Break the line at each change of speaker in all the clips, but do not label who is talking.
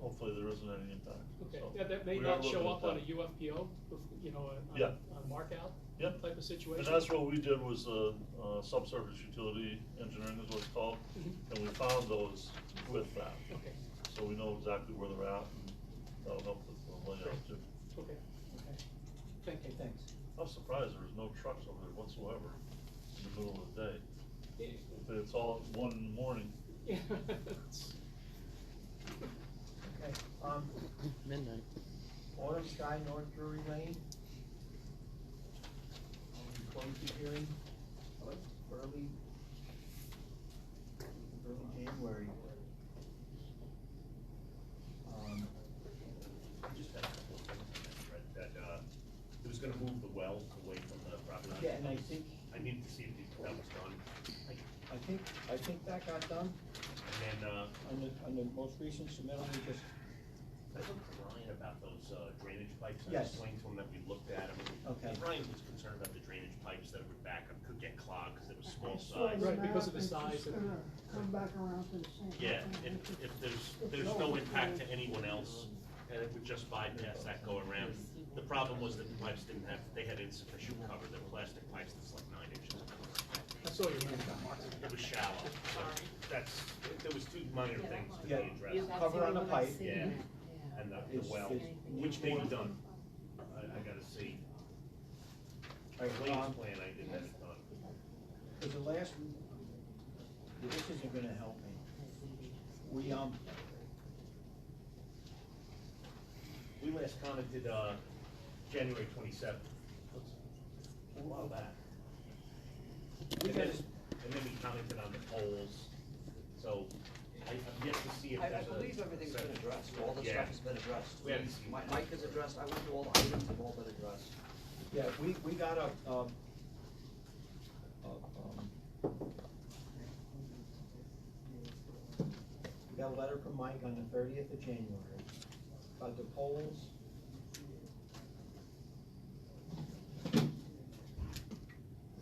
isn't any impact.
Okay,
so
yeah, that may
we are
not show
looking
up
at
on a
that.
UFPO, you know, a-
Yeah.
on a markout
Yep.
type of situation.
And that's what we did was, uh, uh, subsurface utility engineering is what it's called,
Mhm.
and we found those with that.
Okay.
So we know exactly where they're at, and that'll help with the layout too.
Okay, okay. Thank you.
Okay, thanks.
I'm surprised there was no trucks over there whatsoever in the middle of the day. If It's all at one in the morning.
Yeah.
Okay, um,
Midnight.
Autumn Sky North Drury Lane. Um, we Close the hearing, what, early, early January. Um,
I just had a couple of things on that, Fred, that, uh, it was gonna move the well away from the property line.
Yeah, and I think,
I needed to see if that was done. And
I think, I think that got done
then, uh,
on the, on the most recent submittal, we just,
I talked to Ryan about those uh, drainage pipes. I
Yes.
explained to him that we looked at them.
Okay.
And Ryan was concerned about the drainage pipes that would back up, could get clogged because it was small
So
size.
the
Right, because of the
map, it's
size of-
just gonna Come back around to the same.
Yeah, if, if there's, there's no impact to anyone else, and it would just bypass that go around. The problem was that the pipes didn't have, they had insufficient cover, they're plastic pipes that's like nine inches.
I saw your hand.
It was shallow, so that's, there was two minor things to be
Yeah.
addressed,
cover on the pipe.
yeah, and the, the
It's-
well,
it's-
which may be done. I, I gotta see,
all
the
right,
latest
um,
plan I did have it done.
Because the last, this isn't gonna help me. We, um,
We last commented, uh, January twenty-seventh. A while back.
we
And then,
gotta,
and then we commented on the polls, so I, I've yet to see if
I, I
that's. a-
believe everything's been addressed, all the
Yeah.
stuff has been addressed.
We haven't seen
My-
it.
Mike has addressed, I went through all the items, have all been addressed.
yeah, we, we got a, um, a, um, we got a letter from Mike on the thirtieth of January about the polls.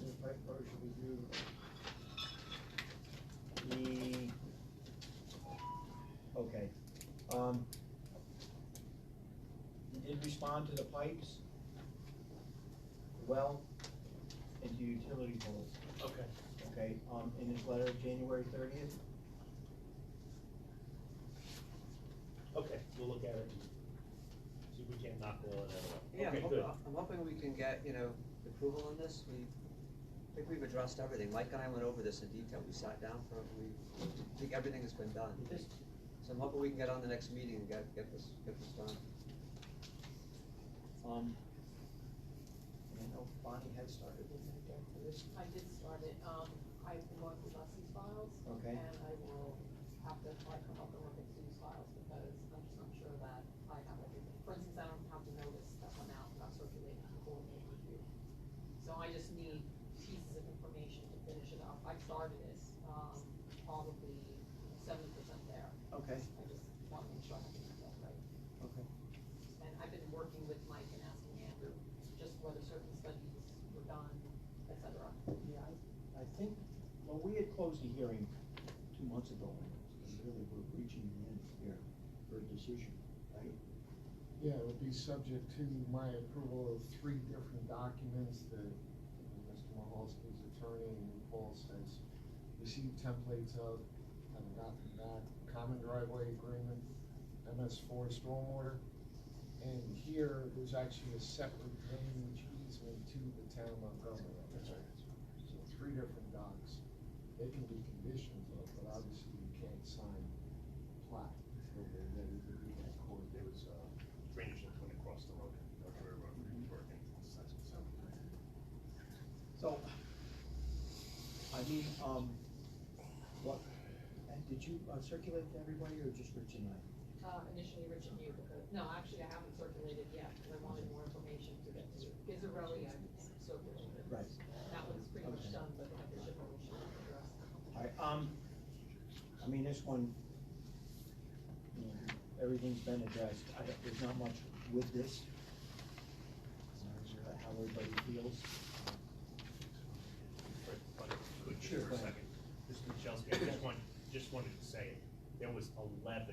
The pipe should we do? The, okay, um, you did respond to the pipes, well, and to utility poles.
Okay.
Okay, um, in his letter, of January thirtieth,
Okay, we'll look at it. and See if we can't knock all of that off.
Yeah, I'm
Okay,
hop-
good.
I'm hoping we can get, you know, approval on this, we, I think we've addressed everything, Mike and I went over this in detail, we sat down for, we, I think everything has been done.
This-
So I'm hoping we can get on the next meeting and get, get this, get this done.
um, I know Bonnie had started with that deck for this.
I did start it, um, I've been going through Leslie's files.
Okay.
And I will have to apply for help and look at Sue's files because I'm just not sure that I have everything. For instance, I don't have the notice that went out about circulating the whole name review. So I just need pieces of information to finish it up. I started this, um, probably seventy percent there.
Okay,
I just want to make sure I have it all right.
okay,
And I've been working with Mike and asking Andrew just whether certain studies were done, et cetera.
yeah, I, I think, well, we had closed the hearing two months ago, and really we're reaching the end here for a decision, right?
Yeah, it would be subject to my approval of three different documents that uh, Mr. Mahalski's attorney and Paul has received templates of, haven't gotten back, common driveway agreement, MS four stormwater. And here, there's actually a separate drainage easement to the town of Montgomery. So three different docs, they can be conditions of, but obviously you can't sign plat until they're ready to be in court.
There was, uh, drainage that went across the road, or the railroad, or anything, so.
So, I mean, um, what, and did you uh, circulate to everybody or just Rich and I?
Uh, initially Rich and you, because, no, actually I haven't circulated yet, because I wanted more information to get to Gizarelli, I circulated.
Right.
That one's pretty much
Okay.
done, but the other information is addressed.
All right, um, I mean, this one, you know, everything's been addressed, I don't, there's not much with this. I'm not sure How everybody feels.
Fred, if I could
Sure,
for
go
a
ahead.
second. Mr. Michalski, I just want, just wanted to say, there was eleven